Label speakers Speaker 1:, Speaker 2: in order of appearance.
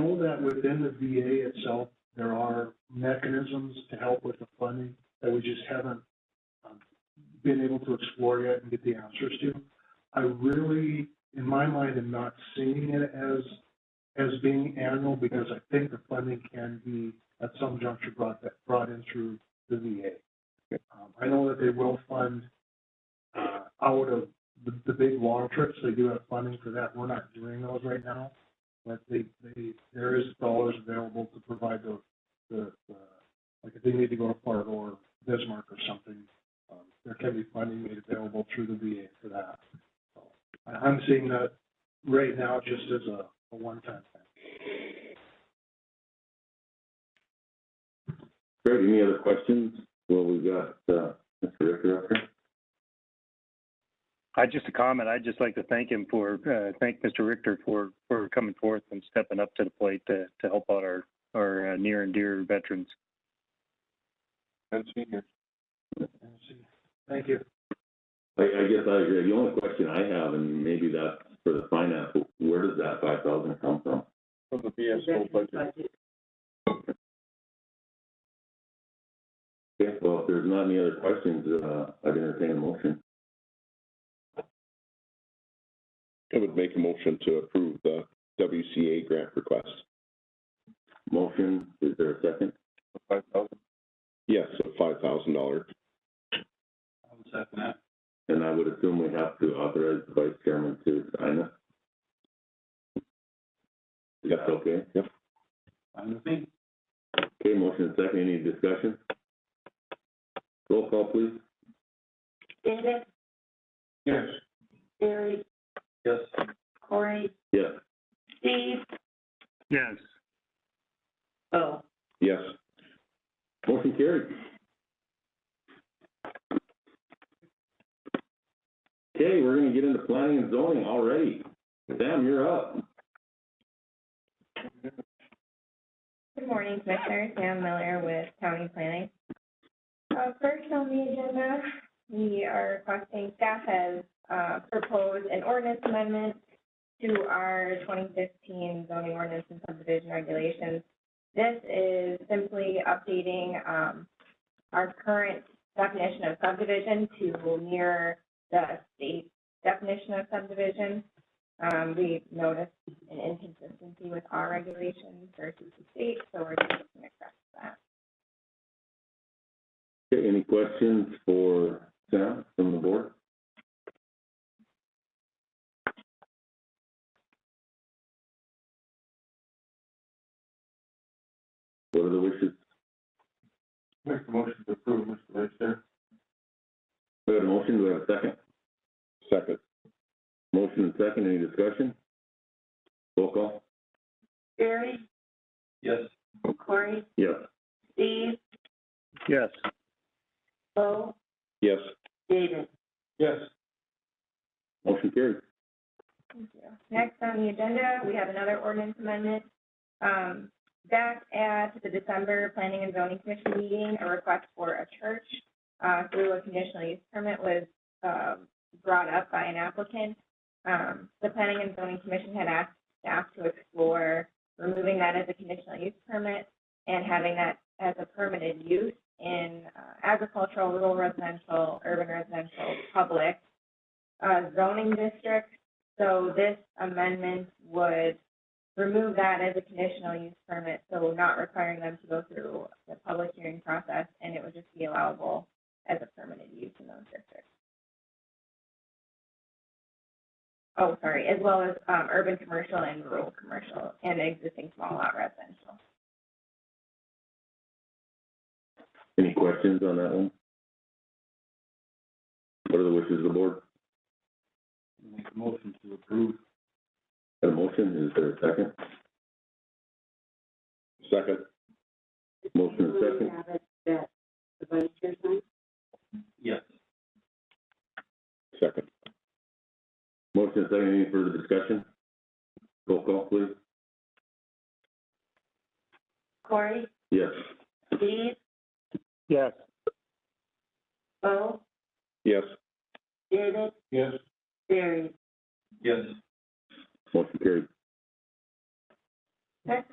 Speaker 1: that within the VA itself, there are mechanisms to help with the funding that we just haven't um, been able to explore yet and get the answers to. I really, in my mind, am not seeing it as, as being annual because I think the funding can be at some juncture brought, that- brought in through the VA. Um, I know that they will fund, uh, out of the, the big long trips, they do have funding for that. We're not doing those right now but they, they, there is dollars available to provide the, the, the, like if they need to go to Fargo or Bismarck or something, um, there can be funding made available through the VA for that. So I, I'm seeing that right now just as a, a one-time thing.
Speaker 2: Great, any other questions? Well, we've got, uh, Mr. Ricker up here.
Speaker 3: I just a comment. I'd just like to thank him for uh, thank Mr. Richter for for coming forth and stepping up to the plate to to help out our our uh, near and dear veterans.
Speaker 1: And see- Thank you.
Speaker 2: I, I guess I agree. The only question I have, and maybe that's for the finance, where does that five thousand come from?
Speaker 4: From the BSO budget.
Speaker 2: Okay, well, if there's not any other questions, uh, I'd entertain a motion.
Speaker 4: I would make a motion to approve the WCA grant request.
Speaker 2: Motion, is there a second?
Speaker 4: Five thousand? Yes, a five thousand dollar.
Speaker 2: And I would assume we have to authorize the vice chairman to sign it. Is that okay?
Speaker 4: Yep.
Speaker 2: Okay, motion and second, any discussion? Roll call, please.
Speaker 5: David,
Speaker 2: Yes.
Speaker 5: Barry,
Speaker 2: Yes.
Speaker 5: Corey,
Speaker 2: Yes.
Speaker 5: Steve,
Speaker 3: Yes.
Speaker 5: Bo.
Speaker 4: Yes.
Speaker 2: Motion carried. Okay, we're gonna get into planning and zoning already. Sam, you're up.
Speaker 6: Good morning, Commissioner. Sam Miller with County Planning. Uh, first on the agenda, we are requesting staff has, uh, proposed an ordinance amendment to our twenty fifteen zoning ordinance and subdivision regulations. This is simply updating, um, our current definition of subdivision to mirror the state definition of subdivision. Um, we noticed an inconsistency with our regulations versus the state, so we're just gonna correct that.
Speaker 2: Okay, any questions for Sam from the board? What are the wishes?
Speaker 4: Make a motion to approve, Mr. Richter.
Speaker 2: We have a motion, do we have a second?
Speaker 4: Second.
Speaker 2: Motion and second, any discussion? Roll call?
Speaker 5: Barry,
Speaker 4: Yes.
Speaker 5: Corey,
Speaker 2: Yes.
Speaker 5: Steve,
Speaker 3: Yes.
Speaker 5: Bo,
Speaker 4: Yes.
Speaker 5: David.
Speaker 4: Yes.
Speaker 2: Motion carried.
Speaker 6: Thank you. Next on the agenda, we have another ordinance amendment. Um, back at the December Planning and Zoning Commission meeting, a request for a church, uh, through a conditional use permit was, um, brought up by an applicant. Um, the Planning and Zoning Commission had asked staff to explore removing that as a conditional use permit and having that as a permitted use in uh, agricultural, rural residential, urban residential, public, uh, zoning districts. So this amendment would remove that as a conditional use permit, so not requiring them to go through the public hearing process, and it would just be allowable as a permitted use in those districts. Oh, sorry, as well as, um, urban commercial and rural commercial and existing small lot residential.
Speaker 2: Any questions on that one? What are the wishes of the board? Make a motion to approve. Got a motion, is there a second?
Speaker 4: Second.
Speaker 2: Motion and second,
Speaker 5: Have it that the vice chair signs?
Speaker 4: Second.
Speaker 2: motion and second, any further discussion? Roll call, please.
Speaker 5: Corey,
Speaker 2: Yes.
Speaker 5: Steve,
Speaker 3: Yes.
Speaker 5: Bo,
Speaker 4: Yes.
Speaker 5: David,
Speaker 4: Yes.
Speaker 5: Barry.
Speaker 2: Motion carried.
Speaker 6: Next